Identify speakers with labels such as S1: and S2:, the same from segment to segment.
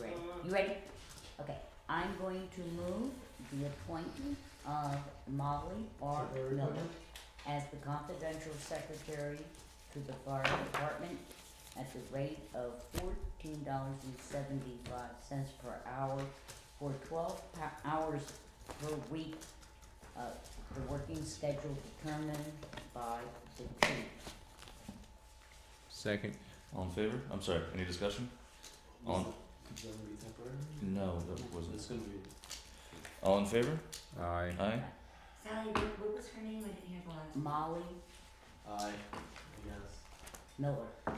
S1: read. You ready? Okay, I'm going to move the appointment of Molly R.
S2: Temporary
S1: Miller
S2: appointment?
S1: as the confidential secretary to the fire department at the rate of fourteen dollars and seventy-five cents per hour for twelve po- hours per week. Uh, the working schedule determined by the chief.
S3: Second.
S4: All in favor? I'm sorry, any discussion? On-
S2: Is that gonna be temporary?
S4: No, that
S2: It's
S4: wasn't.
S2: gonna be.
S4: All in favor?
S3: Aye.
S4: Aye.
S5: Sally, what, what was her name? I didn't hear the last.
S1: Molly
S2: Aye. Yes.
S1: Miller. Oh,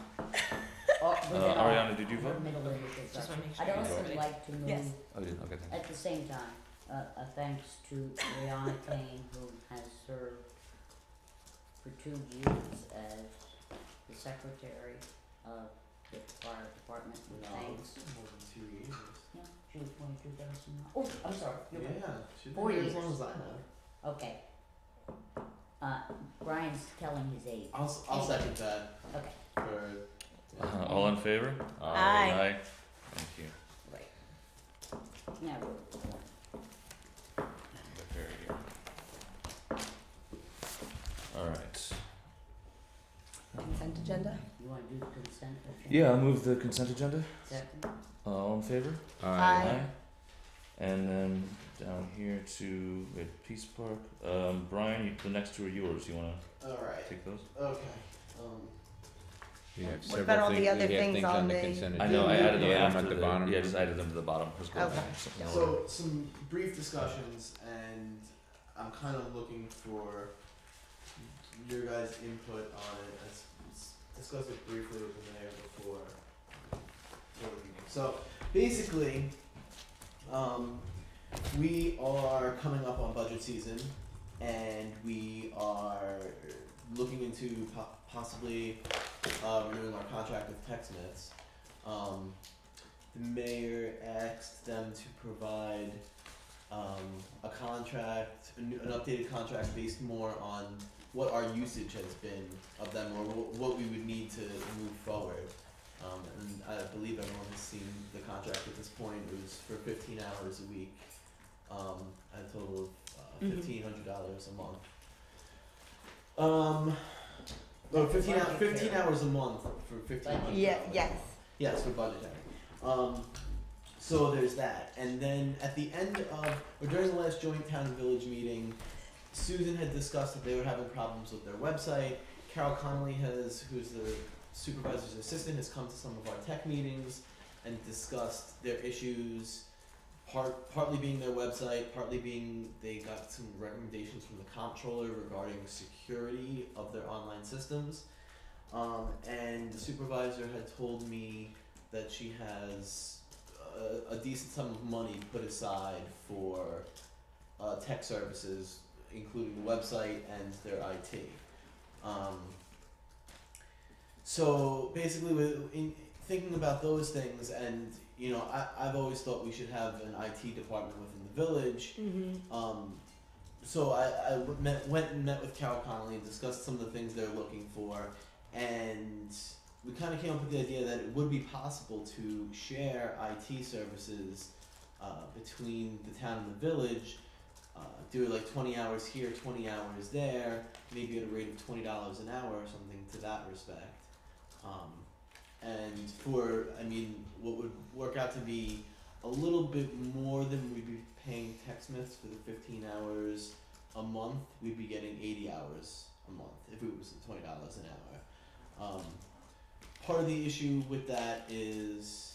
S1: Or,
S4: Uh,
S1: with an R.
S4: Ariana, did you
S1: Her
S4: vote?
S1: middle initials
S5: Just
S1: are-
S5: wanna make
S1: I'd
S5: sure.
S1: also
S5: Yes.
S1: like to
S5: Yes.
S1: move,
S4: Oh, you did, okay, thank
S1: at the same time, uh, a thanks to Brianna Kane, who has served for two years as the secretary of the fire department, with
S2: No,
S1: thanks.
S2: it's more than two years.
S1: No, she was twenty-two thousand, oh, I'm sorry, you're right.
S2: Yeah, she's been
S1: Four
S2: here as long
S1: years.
S2: as I have.
S1: okay. Uh, Brian's telling his age,
S2: I'll, s- I'll
S1: Anyway.
S2: second that
S1: okay,
S2: for.
S4: you. Uh, all in favor?
S5: Aye.
S4: Aye. Thank you.
S1: right. Now, we're-
S4: Look over here. All right.
S5: Consent agenda?
S1: you wanna do consent? agenda?
S4: Yeah, I'll move the consent agenda.
S1: Second,
S4: Uh, all in favor?
S5: Aye.
S4: And then down here to we had Peace Park. Um, Brian, you, the next two are yours. You want
S2: Alright,
S4: to take those?
S2: okay, um,
S3: We have
S5: What
S3: several
S5: about all the
S3: things-
S5: other
S3: we have
S5: things on the-
S3: consent
S4: I know. I
S3: agenda.
S4: added them
S3: You add
S4: after
S3: at the bottom.
S4: Yeah, I just added them to the bottom. Let's go
S5: Okay.
S4: back. Something in order.
S2: So some brief discussions, and I'm kind of looking for your guys' input on it. I s- s- discussed it briefly with the mayor before. before the meeting. So basically, um, we are coming up on budget season, and we are looking into po- possibly uh, renewing our contract with TextNets. Um, the mayor asked them to provide um, a contract, a new- an updated contract based more on what our usage has been of them or wh- what we would need to move forward. Um, and I believe everyone has seen the contract at this point. It was for 15 hours a week, um, at a total of uh,
S5: Mhm.
S2: $1,500 a month. Um, no, 15, hou- 15 hours a month for 1500
S5: Yeah, yes.
S2: Yes, for budgetary. Um, so there's that, and then at the end of or during the last joint town and village meeting, Susan had discussed that they were having problems with their website. Carol Connolly has, who's the supervisor's assistant, has come to some of our tech meetings and discussed their issues. Part partly being their website, partly being they got some recommendations from the comptroller regarding security of their online systems. Um, and the supervisor had told me that she has a, a decent sum of money put aside for uh, tech services, including the website and their IT. Um, so basically, with, in thinking about those things, and you know, I, I've always thought we should have an IT department within the village.
S5: Mm-hmm.
S2: Um, so I, I w- met, went and met with Carol Connolly and discussed some of the things they're looking for, and we kind of came up with the idea that it would be possible to share IT services uh, between the town and the village. Uh, do like 20 hours here, 20 hours there, maybe at a rate of $20 an hour or something to that respect. Um, and for, I mean, what would work out to be a little bit more than we'd be paying TechSmiths for the 15 hours a month. We'd be getting 80 hours a month if it was $20 an hour. Um, part of the issue with that is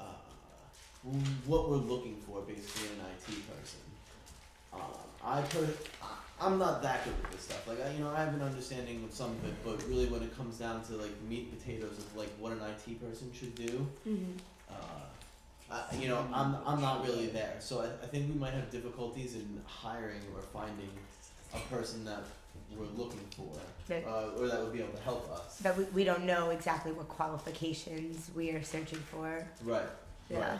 S2: uh, what we're looking for basically in an IT person. Um, I per- I- I'm not that good with this stuff. Like I, you know, I have an understanding of some of it, but really when it comes down to like meat and potatoes of like what an IT person should do,
S5: Mm-hmm.
S2: uh, I, you know, I'm, I'm not really there. So I, I think we might have difficulties in hiring or finding a person that we're looking for,
S5: Right.
S2: uh, or that would be able to help us.
S5: But we, we don't know exactly what qualifications we are searching for.
S2: Right.
S5: Yeah.
S2: Right.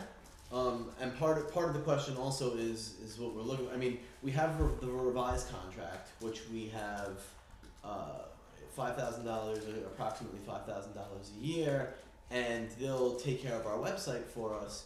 S2: Um, and part of, part of the question also is is what we're looking. I mean, we have re- the revised contract, which we have uh, five thousand dollars, uh, approximately five thousand dollars a year, and they'll take care of our website for us.